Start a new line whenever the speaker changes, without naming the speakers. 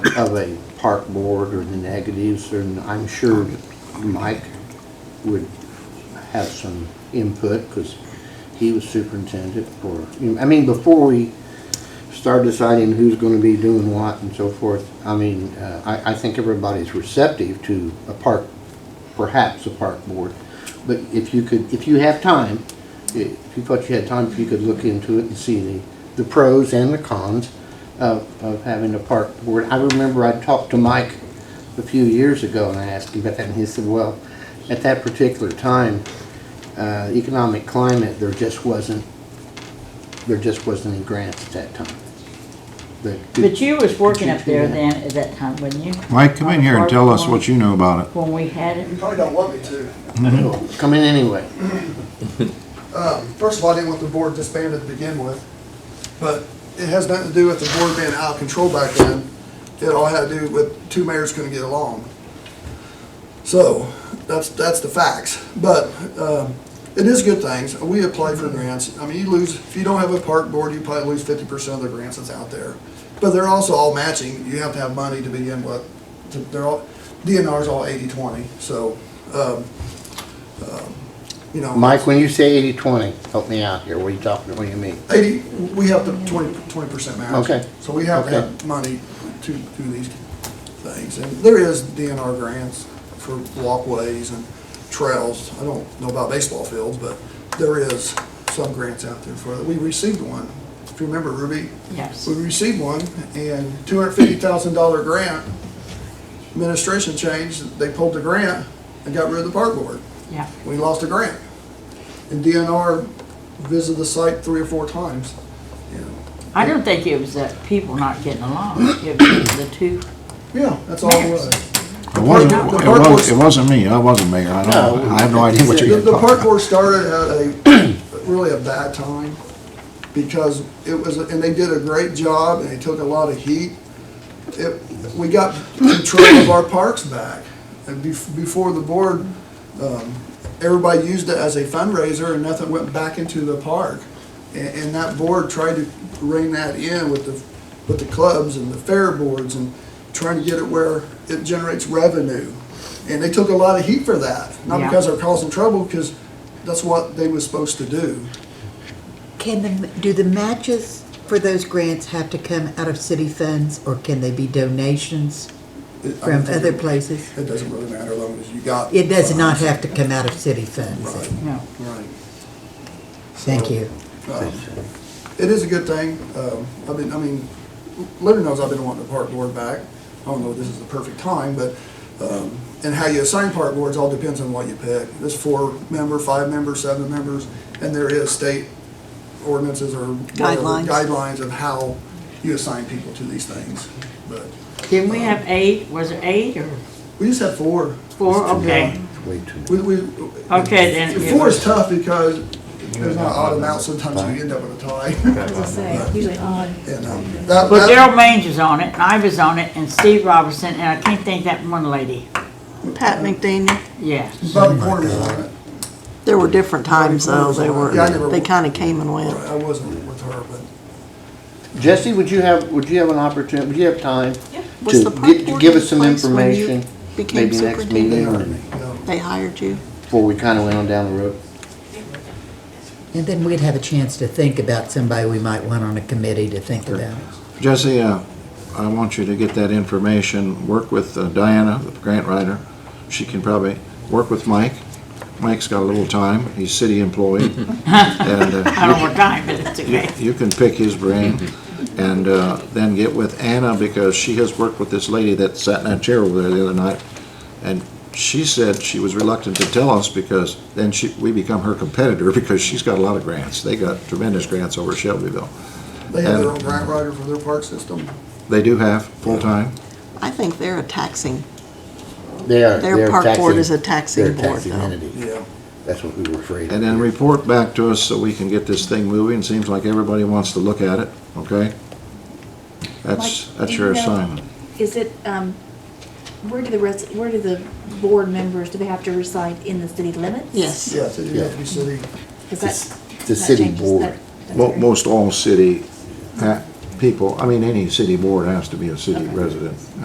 have a park board or the negatives, and I'm sure Mike would have some input, because he was superintendent for, I mean, before we start deciding who's gonna be doing what and so forth, I mean, uh, I, I think everybody's receptive to a park, perhaps a park board. But if you could, if you have time, i- if you thought you had time, if you could look into it and see the, the pros and the cons of, of having a park board. I remember I talked to Mike a few years ago and I asked him about that, and he said, well, at that particular time, uh, economic climate, there just wasn't, there just wasn't any grants at that time. The-
But you was working up there
Yeah.
then at that time, wasn't you?
Mike, come in here and tell us what you know about it.
When we had it,
You probably don't want me to.
Well, Come in anyway.
Um, First of all, I didn't want the board disbanded to begin with, but it has nothing to do with the board being out of control back then. It all had to do with two mayors couldn't get along. So, that's, that's the facts. But um, it is good things. We apply for grants. I mean, you lose, if you don't have a park board, you probably lose fifty percent of the grants that's out there. But they're also all matching. You have to have money to begin with. They're all, DNR's all eighty-twenty, so, um, um, you know.
Mike, when you say eighty-twenty, help me out here, what are you talking, what do you mean?
Eighty, we have the twenty, twenty percent match.
Okay.
So we have to have
Okay.
money to do these things, and there is DNR grants for walkways and trails. I don't know about baseball fields, but there is some grants out there for it. We received one, if you remember, Ruby,
yes.
we received one, and two hundred fifty thousand dollar grant. Administration changed, they pulled the grant and got rid of the park board
Yeah.
we lost a grant. And DNR visited the site three or four times. you know.
I don't think it was the people not getting along, it was the two.
Yeah, that's all it was.
It wasn't, it wasn't, it wasn't me, I wasn't mayor, I don't, I have no idea what
The
you're
the park
talking about.
board started at a, really a bad time, because it was, and they did a great job, and they took a lot of heat. It, we got control of our parks back, and bef- before the board, um, everybody used it as a fundraiser, and nothing went back into the park. And, and that board tried to rein that in with the, with the clubs and the fair boards, and trying to get it where it generates revenue. And they took a lot of heat for that, not
Yeah.
because they're causing trouble, because that's what they was supposed to do.
Can the, do the matches for those grants have to come out of city funds or can they be donations
It- I
from
don't think
other
it-
places?
It doesn't really matter, as long as you got.
It does not have to come out of city funds.
Right,
No.
right.
Thank you.
Um, It is a good thing. Um, I've been, I mean, Leonard knows I've been wanting the park board back. I don't know if this is the perfect time, but, um, and how you assign park boards all depends on what you pick. There's four member, five member, seven members, and there is state ordinances or whatever
Guidelines.
guidelines of how you assign people to these things. But
Didn't we have eight, was it eight or
we just had four.
four, okay,
It's Way too much.
We, we.
Okay, then it
Four
was-
is tough because there's not odd amounts. Sometimes you end up with a tie.
As I say, usually odd.
And, um, that-
well,
that-
Daryl Mange was on it, and I was on it, and Steve Robertson, and I can't think that one lady,
Pat McDaniel.
yeah.
Bobby Corner's on it.
There were different times though, they were,
Yeah, I never-
they kinda came and
Right,
went.
I wasn't with her, but
Jesse, would you have, would you have an opportunity, would you have time?
Was
to
the park
get- to
board
Give
in
us some
place when you
information,
became
maybe next
superintendent?
they
meeting,
hired
or
me. yeah.
They hired you.
before we kinda went on down the road.
And then we'd have a chance to think about somebody we might want on a committee to think about.
Jesse, uh, I want you to get that information, work with uh, Diana, the grant writer, she can probably, work with Mike. Mike's got a little time, he's city employee, and uh,
I don't know what time, but it's okay.
you can pick his brain and uh, then get with Anna because she has worked with this lady that sat in that chair over there the other night. And she said she was reluctant to tell us because then she, we become her competitor because she's got a lot of grants. They got tremendous grants over Shelbyville.
They have their own grant writer for their park system.
They do have full-time.
I think they're a taxing,
They are,
Their
they're
park board
taxing-
is a taxing
they're a
board,
taxing
though.
entity.
Yeah.
That's what we were afraid
And then
of.
report back to us so we can get this thing moving. Seems like everybody wants to look at it, okay? That's,
Like,
that's
do
your
you know-
assignment.
Is it, um, where do the res, where do the board members, do they have to reside in the city limits?
yes.
Yes, it is Deputy City.
Is that?
The
that
city
changes
board.
that- that's
Mo-
right.
Most all city uh, people, I mean, any city board has to be a city resident.